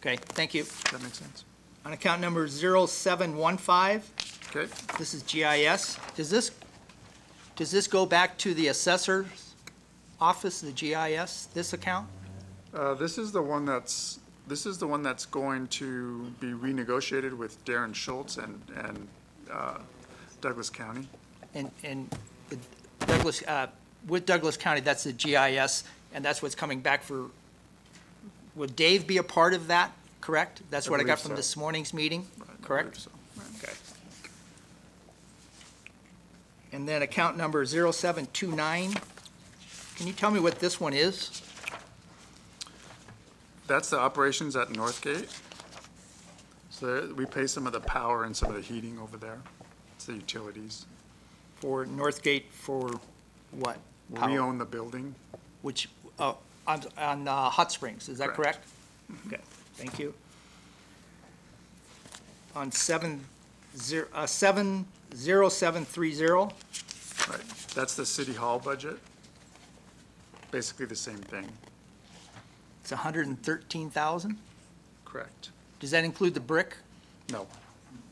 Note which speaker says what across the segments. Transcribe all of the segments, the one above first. Speaker 1: Okay, thank you.
Speaker 2: That makes sense.
Speaker 1: On account number 0715,
Speaker 2: Okay.
Speaker 1: this is GIS. Does this, does this go back to the assessor's office, the GIS, this account?
Speaker 2: Uh, This is the one that's, this is the one that's going to be renegotiated with Darren Schultz and, and uh, Douglas County.
Speaker 1: And, and the Douglas, uh, with Douglas County, that's the GIS, and that's what's coming back for, would Dave be a part of that, correct? That's
Speaker 2: I
Speaker 1: what I got
Speaker 2: believe
Speaker 1: from
Speaker 2: so.
Speaker 1: this morning's meeting,
Speaker 2: I believe
Speaker 1: correct?
Speaker 2: so.
Speaker 1: Okay. And then account number 0729, can you tell me what this one is?
Speaker 2: That's the operations at Northgate. So there- we pay some of the power and some of the heating over there. It's the utilities.
Speaker 1: For Northgate for what?
Speaker 2: We
Speaker 1: Power.
Speaker 2: own the building.
Speaker 1: Which, oh, on, on uh, Hot Springs, is that correct?
Speaker 2: Correct. Mm-hmm.
Speaker 1: Okay, thank you. On seven, zero, uh, seven, zero, seven, three, zero,
Speaker 2: Right. That's the city hall budget. Basically the same thing.
Speaker 1: it's a hundred and thirteen thousand?
Speaker 2: Correct.
Speaker 1: Does that include the brick?
Speaker 2: No,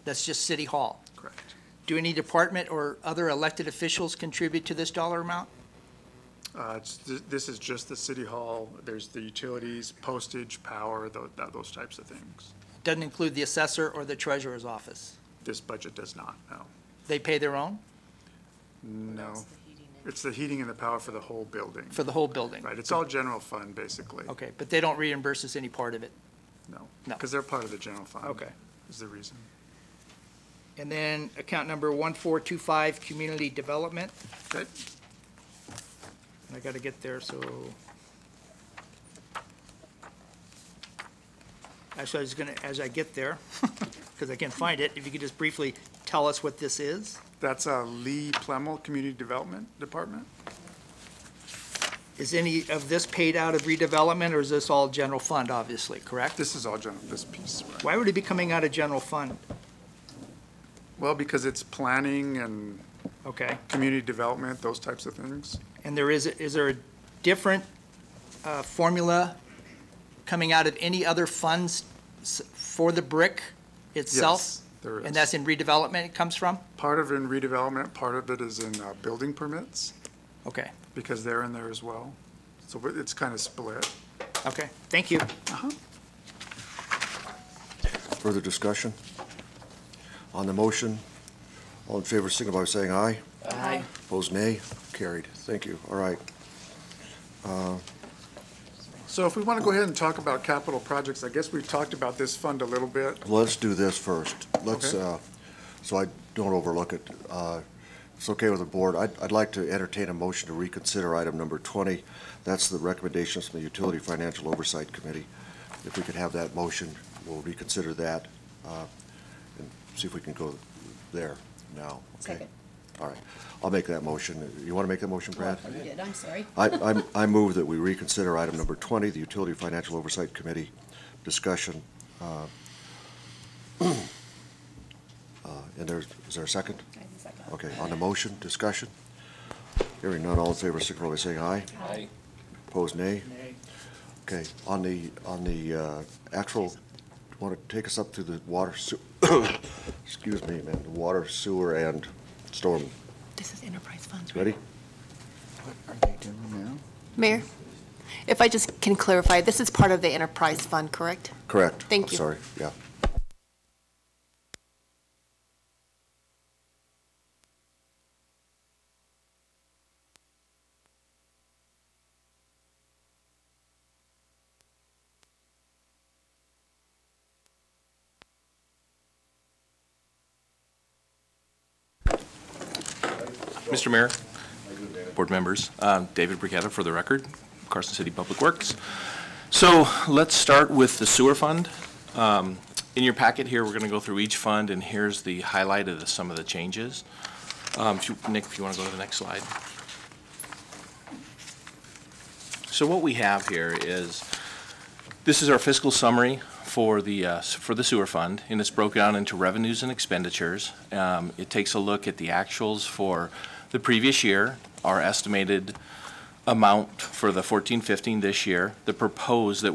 Speaker 1: That's just City Hall.
Speaker 2: correct.
Speaker 1: Do any department or other elected officials contribute to this dollar amount?
Speaker 2: Uh, it's- th- This is just the city hall, there's the utilities, postage, power, tho- tho- those types of things.
Speaker 1: Doesn't include the assessor or the treasurer's office.
Speaker 2: This budget does not, no.
Speaker 1: They pay their own
Speaker 2: No. It's the heating and the power for the whole building,
Speaker 1: for the whole building?
Speaker 2: right? It's all general fund, basically.
Speaker 1: Okay, but they don't reimburse us any part of it?
Speaker 2: No.
Speaker 1: No.
Speaker 2: Because they're part of the general fund.
Speaker 1: Okay.
Speaker 2: Is the reason.
Speaker 1: And then account number 1425, community development.
Speaker 2: Okay,
Speaker 1: I gotta get there, so. Actually, I was gonna, as I get there, because I can't find it, if you could just briefly tell us what this is?
Speaker 2: that's uh, Lee Plemmel, Community Development Department.
Speaker 1: Is any of this paid out of redevelopment, or is this all general fund, obviously, correct?
Speaker 2: This is all general, this piece, right?
Speaker 1: Why would it be coming out of general fund?
Speaker 2: Well, because it's planning and
Speaker 1: Okay,
Speaker 2: community development, those types of things.
Speaker 1: and there is, is there a different uh, formula coming out of any other funds s- for the brick itself?
Speaker 2: Yes, there is.
Speaker 1: And that's in redevelopment it comes from?
Speaker 2: Part of it in redevelopment, part of it is in uh, building permits,
Speaker 1: Okay,
Speaker 2: because they're in there as well. So it- it's kind of split.
Speaker 1: okay, thank you.
Speaker 3: Further discussion? On the motion, all in favor, signify by saying aye.
Speaker 1: Aye.
Speaker 3: Opposed, nay. Carried. Thank you. All right.
Speaker 2: So if we want to go ahead and talk about capital projects, I guess we've talked about this fund a little bit.
Speaker 3: Let's do this first. Let's,
Speaker 2: Okay.
Speaker 3: uh, so I don't overlook it. Uh, It's okay with the board. I'd, I'd like to entertain a motion to reconsider item number 20. That's the recommendations from the Utility Financial Oversight Committee. If we could have that motion, we'll reconsider that uh, and see if we can go there now. Okay.
Speaker 4: Second.
Speaker 3: All right. I'll make that motion. You want to make that motion, Brad?
Speaker 4: You did, I'm sorry.
Speaker 3: I, I'm- I move that we reconsider item number 20, the Utility Financial Oversight Committee discussion. uh, uh, And there's, is there a second?
Speaker 4: I have a second.
Speaker 3: Okay, on the motion, discussion? Hearing none, all in favor, signify by saying aye.
Speaker 5: Aye.
Speaker 3: Opposed, nay? Okay, on the, on the uh, actual, want to take us up to the water, sew- excuse me, man, the water, sewer, and storm.
Speaker 6: This is enterprise funds, right?
Speaker 3: Ready?
Speaker 6: Mayor, if I just can clarify, this is part of the enterprise fund, correct?
Speaker 3: Correct.
Speaker 6: Thank you.
Speaker 3: Sorry, yeah.
Speaker 5: Mr. Mayor, board members, uh, David Bricketta for the record, Carson City Public Works. So let's start with the sewer fund. Um, In your packet here, we're going to go through each fund, and here's the highlight of the- some of the changes. Um, if you- Nick, if you want to go to the next slide. So what we have here is, this is our fiscal summary for the, uh, s- for the sewer fund, and it's broken down into revenues and expenditures. Um, It takes a look at the actuals for the previous year, our estimated amount for the fourteen fifteen this year, the proposed that we're